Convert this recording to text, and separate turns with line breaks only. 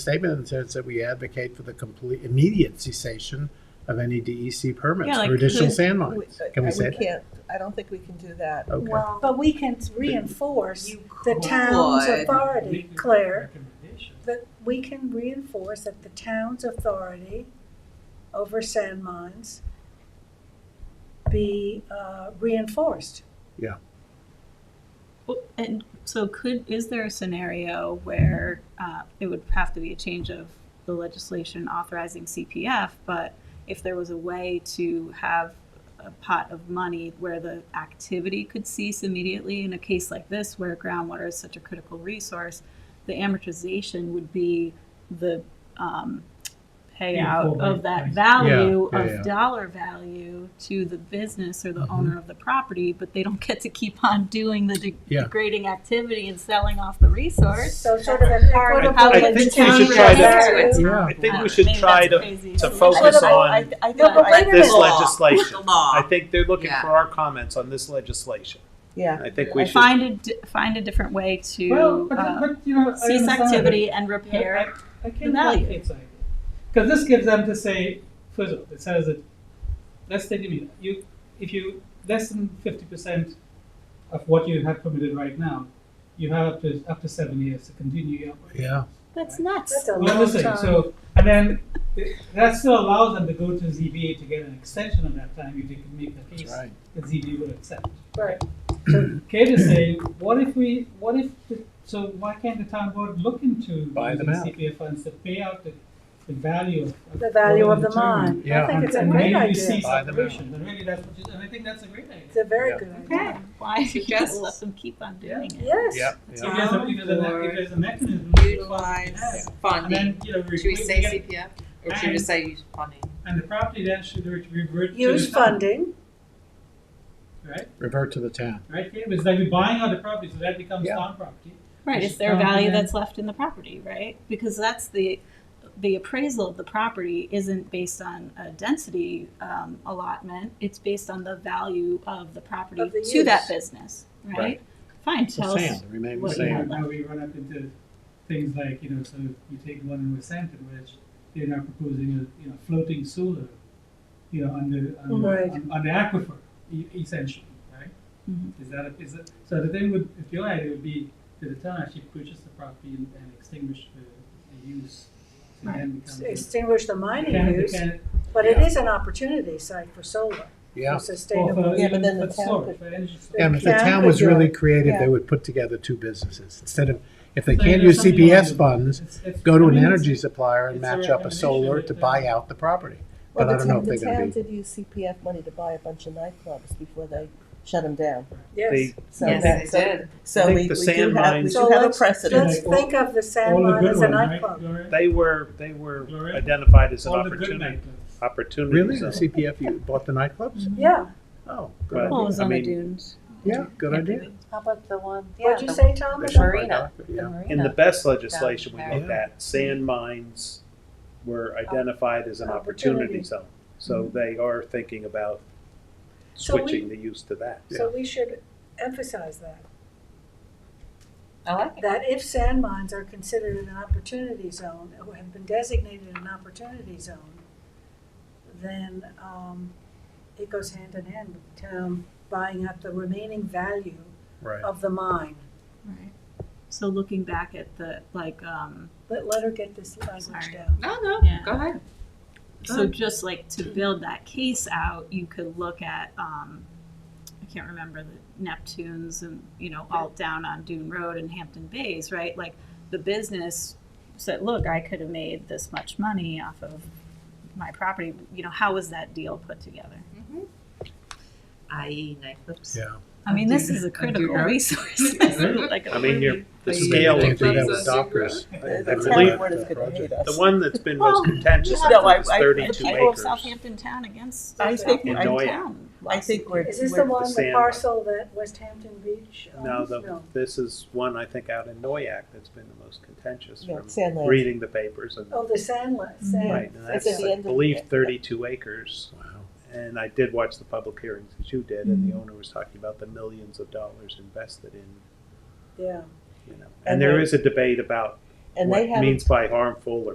statement in the sense that we advocate for the complete immediate cessation of any DEC permits
Yeah, like
for additional
who-
sand
We-
uh,
mines. Can we say that?
can't, I don't think we can do that.
Okay.
Well,
But we can reinforce
you
the town's
could.
authority,
Make a
Claire,
recommendation.
that we can reinforce that the town's authority over sand mines be uh, reinforced.
Well, And so could, is there a scenario where uh, it would have to be a change of the legislation authorizing CPF, but if there was a way to have a pot of money where the activity could cease immediately in a case like this where groundwater is such a critical resource, the amortization would be the um, payout
full
of that
price.
value
Yeah, yeah,
of
yeah.
dollar value to the business or the owner of the property, but they don't get to keep on doing the de-
Yeah.
degrading activity and selling off the resource.
So sort of an equitable.
How
I
would
think
the
we
town
should try to-
react it?
Yeah.
I think
Uh,
we should
maybe
try
that's a
to,
crazy
to
solution.
focus
Well, I-
on
I- I-
No, but
I-
wait a
this
minute.
legislation.
The law.
I think they're looking
Yeah.
for our comments on this legislation.
Yeah,
I think we
I
should.
Find a, di- find a different way
Well,
to
but,
uh,
but you know, I
cease
understand it.
activity and
Yeah,
repair.
I, I
the
can
value.
like Kate's idea. Because this gives them to say, first of all, it says that, let's take a minute. You, if you, less than 50% of what you have permitted right now, you have up to, up to seven years to continue your operation.
Yeah,
That's nuts.
That's a
Well,
long
listen,
time.
so, and then th- that still allows them to go to ZBA to get an extension of that time if they can make the
that's
case
right.
that ZBA would accept.
Right.
Kate is saying, what if we, what if, the- so why can't the town board look into
Buy them
using
out.
CPF funds to pay out the, the value of. of
The value of the
material?
mine.
Yeah.
I think it's a
And
great
maybe you
idea.
cease
Buy them out.
operations, and really that's what you, and I think that's a great idea.
It's a very
Yeah.
good idea.
Okay.
Why do you just
Suggest-
let them keep on doing it?
Yes.
Yeah, yeah.
If there's a, if there's a, me- if there's a mechanism. to
utilize
And
funding.
then, you know, we,
Should we
we
say
get-
CPF or should we
and-
say use funding?
and the property then should re- revert to the
Use
town,
funding,
Right,
Revert to the town.
right, Kate? it's like we're buying out the property, so that becomes
Yeah.
town property.
Right,
Which
it's their
is
value
dominant.
that's left in the property, right? Because that's the, the appraisal of the property isn't based on a density um, allotment. It's based on the value of the property
Of the
to that
use.
business, right?
Right.
Fine,
The
tell us.
sand, remain the
what
But yeah,
sand.
now we run up into things like, you know, so you take one in Wisconsin, which they're now proposing a, you know, floating solar, you know, on the, on,
Right.
on, on the aquifer, e- essentially, right?
Mhm.
Is that, a- is it, so the thing would, if your idea would be that the town actually purchase the property and, and extinguish the, the use. So then becomes. a-
extinguish the mining
Can-
use,
can-
but it
Yeah.
is an opportunity site for solar,
Yeah.
for sustainable.
well, for-
Yeah, but then
for
the town
storage,
could-
for energy storage.
And if the
Yeah,
town
but
was
you're
really
right.
creative,
Yeah.
they would put together two businesses. Instead of, if they
So,
can't
you know,
use
something like
CPS
that.
funds,
It's- it's-
go to
I
an
mean, it's-
energy supplier and
it's a
match up a solar to
recommendation.
buy out the property.
Well,
But I
the
don't
town-
know if they're gonna
The town did use CPF money to buy a bunch of nightclubs before they shut them down.
Yes.
They-
So
Yes,
that-
they
so-
did.
I
So
think
we, we
the
do
sand
have, we
mines-
So
do have a
let's-
precedent.
Let's
Like all-
think of the
All
sand
the
mine
good
as a
ones, right,
nightclub.
Gloria?
They were they were
Gloria?
identified as an
All the good
opportunity
nightclubs.
opportunity.
Really? The
zone.
CPF, you bought the nightclubs?
Yeah,
Oh,
Well,
good
Well, it
idea.
was
I
on the
mean,
dunes.
Yeah, good
Can't
idea.
believe it.
How about the one?
what'd you say, Tom?
They
about
should buy
Marina.
Docker, Yeah.
In the best legislation we
Yeah.
looked at, sand mines were identified as an opportunity
Opportunity.
zone. So they are thinking about
So we-
switching the use to that.
So we should emphasize that,
I like it.
that if sand mines are considered an opportunity zone, or have been designated an opportunity zone, then, um, it goes hand in hand with the town buying up the remaining value
Right.
of the mine.
Right. So looking back at the, like, um,
Let, let her get this language
Sorry.
down.
No, no,
Yeah.
go ahead.
So just like to build that case out, you could look at, um, I can't remember the Neptunes and, you know, all down on Dune Road and Hampton Bays, right? Like the business said, look, I could have made this much money off of my property. You know, how was that deal put together?
IE nightclubs.
Yeah.
I mean, this is a critical
Dune Road.
resource. Like,
I mean, you're, the
Please.
Maybe
scale
they could
of
do that
these,
with
Places.
Dockers. I- I
The
the
town
believe
board is
that
gonna hate
project.
us.
the one that's been most
Well,
contentious
you have to-
is
I- I-
the
thirty-two
people of
acres.
Southampton Town against
I think-
Southampton
I think-
Town.
I think we're,
Is this the
we're-
one,
the
the
sand
parcel that West Hampton Beach
Um, Now,
owns?
the, this is one, I think, out in Noyak that's been the most contentious
yeah,
from
sand lands.
reading the papers and,
Oh, the sand, li- sand.
right, and
It's
that's,
at the
I
end of-
believe, thirty-two acres.
Wow.
And I did watch the public hearings that you did, and the
Mm-hmm.
owner was talking about the millions of dollars invested in,
yeah.
you know.
And
And there
the-
is a debate about
And they
what
haven't
means by harmful or